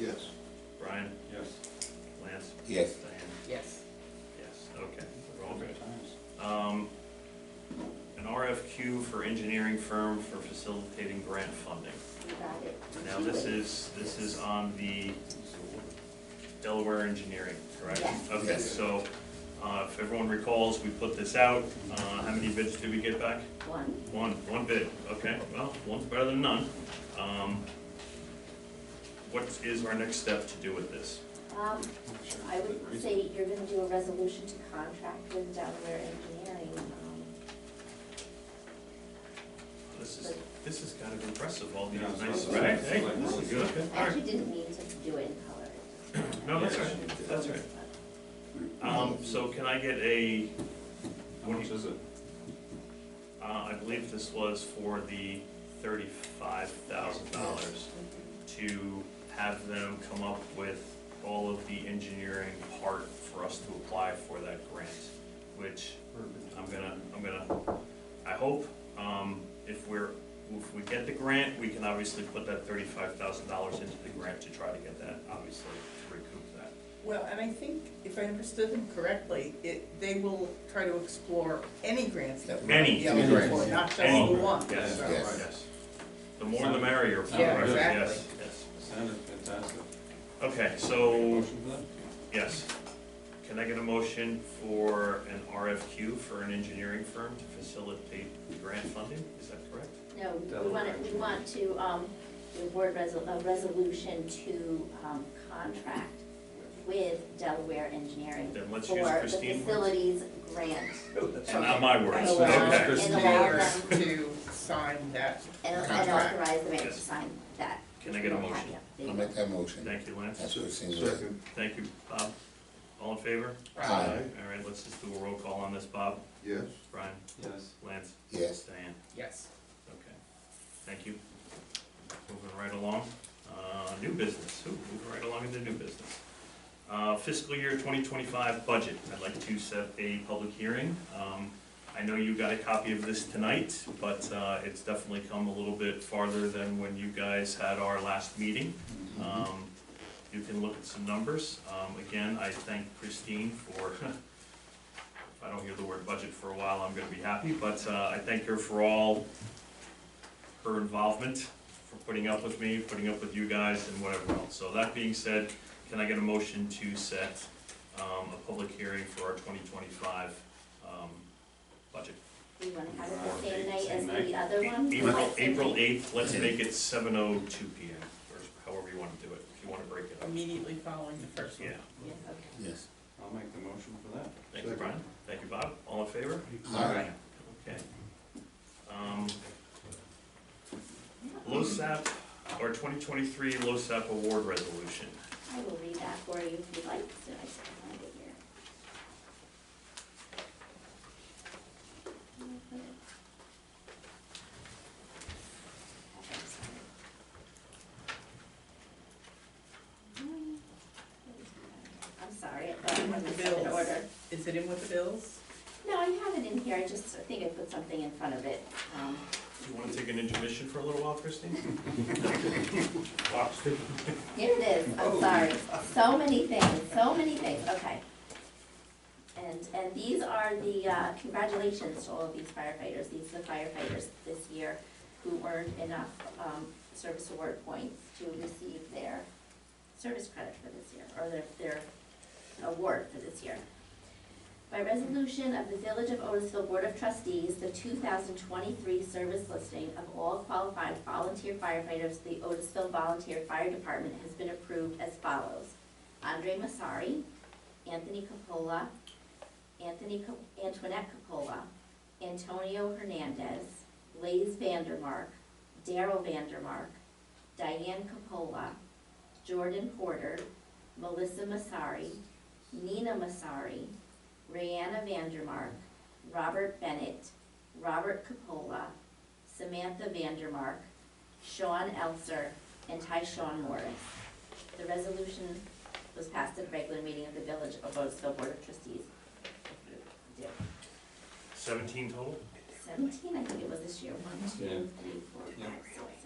Yes. Brian, Yes. Lance, Yes. Diane, Yes. yes, okay, we're all good. Um, an RFQ for engineering firm for facilitating grant funding. You got it. Now, this is, this is on the Delaware Engineering, correct? Yes. Okay, Yes. so, uh, if everyone recalls, we put this out, uh, how many bids did we get back? One. One, one bid, okay, well, one's better than none. Um, What is our next step to do with this? Um, I would say you're gonna do a resolution to contract with Delaware Engineering. um, This is, this is kind of impressive, all these Yeah, it's nice, like- right? it's Hey, like- this is good, all I right. actually didn't mean to do it in color. It just- No, that's Yeah. right, that's right. Um, so can I get a, How much is it? uh, I believe this was for the thirty-five thousand dollars to have them come up with all of the engineering part for us to apply for that grant, which I'm gonna, I'm gonna, I hope, um, if we're, if we get the grant, we can obviously put that thirty-five thousand dollars into the grant to try to get that, obviously, to recoup that. Well, and I think, if I understood them correctly, it, they will try to explore any grants that That- Any, we eligible for, grants, not just any the one. Yes, so. Yes. yes. The more the merrier, for Yeah, us, yes, exactly. yes. Sounded fantastic. Okay, so, Motion for that? yes. Can I get a motion for an RFQ for an engineering firm to facilitate grant funding? Is that correct? No, we Delaware. want, we want to, um, do a board resol, a resolution to, um, contract with Delaware Engineering Then let's use for the Christine words. facilities grant. And not my And words, allow, okay. and Christine. allow them to sign that. And and Contract. authorize the mayor to Yes. sign that. Can I get a We don't have motion? yet. There you I'll go. make that motion. Thank you, Lance. That's what it seems like. Thank you, Bob. All in favor? Aye. All right, let's just do a roll call on this, Bob, Yes. Brian, Yes. Lance, Yes. Diane. Yes. Okay, thank you. Moving right along, uh, new business, Ooh, moving right along into new business. Uh, fiscal year twenty twenty-five budget, I'd like to set a public hearing. Um, I know you got a copy of this tonight, but, uh, it's definitely come a little bit farther than when you guys had our last meeting. Um, you can look at some numbers. Um, again, I thank Christine for, if I don't hear the word budget for a while, I'm gonna be happy, but, uh, I thank her for all her involvement, for putting up with me, putting up with you guys and whatever else. So that being said, can I get a motion to set, um, a public hearing for our twenty twenty-five, um, budget? We wanna have Wow, it the same eight, night same as night. the other one? April, Like, same April night? eighth, let's make it seven oh two P M, or however you wanna do it, if you wanna break it up. Immediately following the first one. Yeah. Yes, okay. Yes. I'll make the motion for that. Thank you, Brian. Thank you, Bob. All in favor? Aye. Okay. Um, LoSAP, or 2023 LoSAP award resolution. I will read that for you if you'd like, so I just find it here. I'm sorry, I thought it was in Bills. order. Is it in with the bills? No, I have it in here, I just think I put something in front of it. Um, You want to take an intermission for a little while, Christine? Here it is, I'm sorry, so many things, so many things, okay. And, and these are the, uh, congratulations to all of these firefighters, these are the firefighters this year who earned enough, um, service award points to receive their service credit for this year, or their, their award for this year. By resolution of the Village of Otisville Board of Trustees, the two thousand twenty-three service listing of all qualified volunteer firefighters, the Otisville Volunteer Fire Department has been approved as follows. Andre Masari, Anthony Capola, Anthony, Co- Antoinette Capola, Antonio Hernandez, Lays Vandermark, Daryl Vandermark, Diane Capola, Jordan Porter, Melissa Masari, Nina Masari, Rayanna Vandermark, Robert Bennett, Robert Capola, Samantha Vandermark, Sean Elser, and Tyshawn Morris. The resolution was passed at a regular meeting of the Village of Otisville Board of Trustees. 17 total? Seventeen, I think it was this year, one, Yeah. two, three, four, Yeah. five, six,